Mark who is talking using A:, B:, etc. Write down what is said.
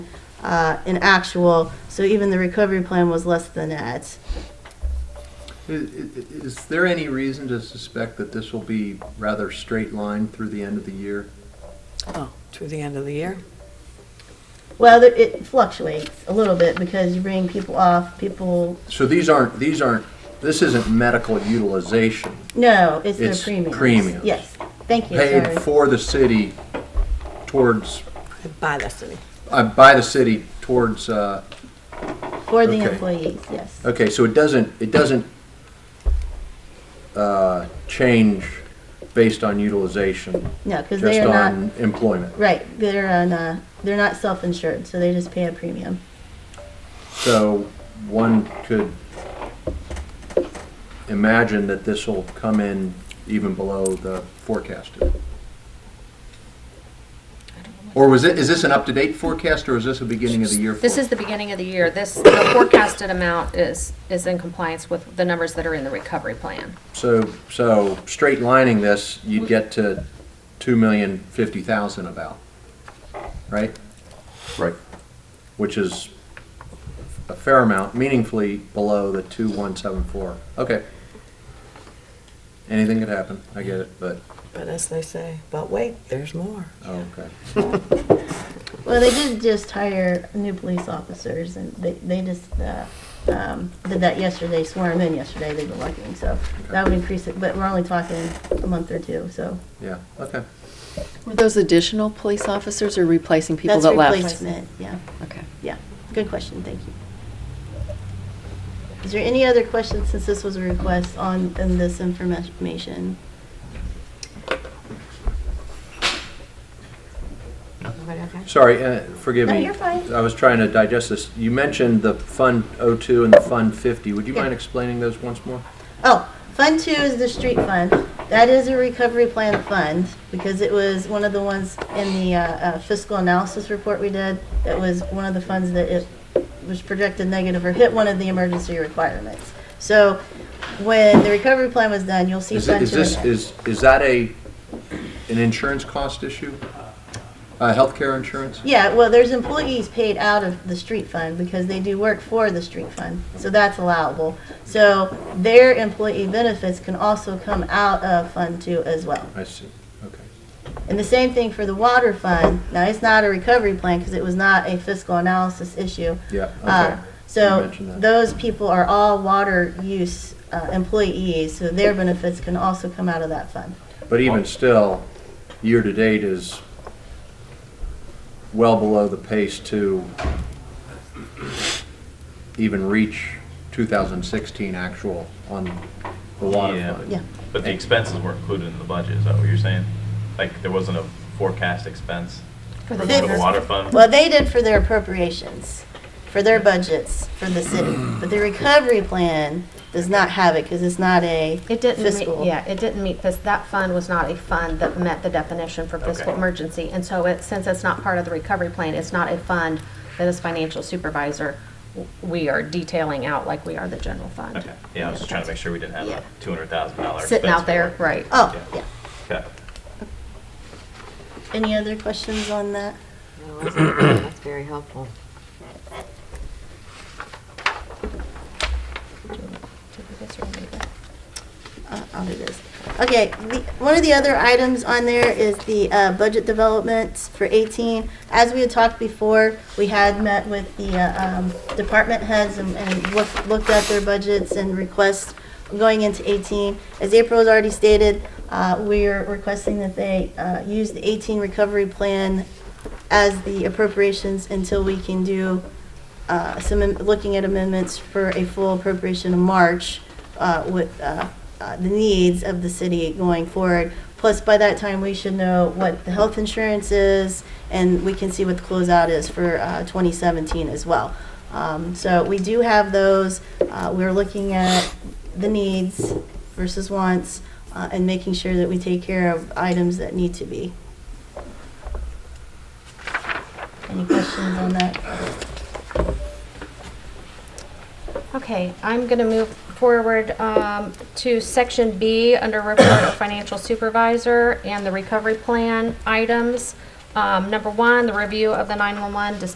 A: uh, in actual, so even the recovery plan was less than that.
B: I- i- Is there any reason to suspect that this will be rather straight line through the end of the year?
C: Oh, through the end of the year?
A: Well, there- it fluctuates a little bit because you bring people off, people,
B: So these aren't, these aren't, this isn't medical utilization
A: no, it's their
B: It's
A: premiums.
B: premiums.
A: Yes, thank you,
B: paid
A: sorry.
B: for the city towards,
C: By the city.
B: uh, by the city towards, uh,
A: For the
B: okay.
A: employees, yes.
B: okay, so it doesn't, it doesn't uh, change based on utilization,
A: No, because they
B: just
A: are not,
B: on employment.
A: right, they're on, uh, they're not self-insured, so they just pay a premium.
B: So one could imagine that this will come in even below the forecasted. Or was it, is this an up-to-date forecast, or is this a beginning of the year?
D: This is the beginning of the year. This, the forecasted amount is, is in compliance with the numbers that are in the recovery plan.
B: forecast? So, so straight lining this, you'd get to two million fifty thousand about, right?
E: Right.
B: Which is a fair amount, meaningfully below the two one seven four. Okay. Anything could happen, I get it, but.
C: But as they say, but wait, there's more.
B: Oh, okay.
A: Well, they did just hire new police officers, and they, they just, uh, um, did that yesterday, swore them in yesterday, they've been working, so that would increase it, but we're only talking a month or two, so.
B: Yeah, okay.
F: Were those additional police officers or replacing people
A: that's
F: that left?
A: replacement. Yeah,
F: Okay.
A: yeah, good question, thank you. Is there any other questions, since this was a request on, in this information?
D: Everybody okay?
B: Sorry, uh, forgive
A: No,
B: me.
A: you're fine.
B: I was trying to digest this. You mentioned the Fund 02 and the Fund 50. Would you
A: Yeah.
B: mind explaining those once more?
A: Oh, Fund Two is the street fund. That is a recovery plan fund because it was one of the ones in the uh, uh, fiscal analysis report we did. That was one of the funds that it was projected negative or hit one of the emergency requirements. So when the recovery plan was done, you'll see
B: Is it-
A: Fund
B: is
A: Two in
B: this,
A: there.
B: is, is that a, an insurance cost issue? Uh, Healthcare insurance?
A: Yeah, well, there's employees paid out of the street fund because they do work for the street fund, so that's allowable. So their employee benefits can also come out of Fund Two as well.
B: I see, okay.
A: And the same thing for the water fund. Now, it's not a recovery plan because it was not a fiscal analysis issue.
B: Yeah,
A: Uh,
B: okay. You
A: So
B: mentioned that.
A: those people are all water use uh, employees, so their benefits can also come out of that fund.
B: But even still, year-to-date is well below the pace to even reach 2016 actual on the water
G: Yeah.
B: fund.
A: Yeah.
G: But the expenses were included in the budget, is that what you're saying? Like, there wasn't a forecast expense for
A: the
G: the
A: water-
G: water fund?
A: Well, they did for their appropriations, for their budgets, for the city. But the recovery plan does not have it because it's not a
D: It didn't meet,
A: fiscal.
D: yeah, it didn't meet this, that fund was not a fund that met the definition for fiscal
G: Okay.
D: emergency. And so it, since it's not part of the recovery plan, it's not a fund that as financial supervisor, w- we are detailing out like we are the general fund.
G: Okay, yeah, I was just trying to make sure we didn't have
D: Yeah.
G: a two hundred thousand dollar expense.
D: Sitting out there,
G: for it.
D: right.
A: Oh, yeah.
G: Okay.
A: Any other questions on that?
C: That's very helpful.
A: Uh, I'll do this. Okay, the, one of the other items on there is the uh, budget developments for 18. As we had talked before, we had met with the uh, um, department heads and, and looked, looked at their budgets and requests going into 18. As April has already stated, uh, we're requesting that they uh, use the 18 recovery plan as the appropriations until we can do uh, some, am- looking at amendments for a full appropriation in March uh, with uh, uh, the needs of the city going forward. Plus, by that time, we should know what the health insurance is, and we can see what the closeout is for uh, 2017 as well. Um, So we do have those. Uh, We're looking at the needs versus wants uh, and making sure that we take care of items that need to be. Any questions on that?
D: Okay, I'm going to move forward um, to Section B, under Report of Financial Supervisor and the Recovery Plan items. Um, Number one, the review of the 911 dis-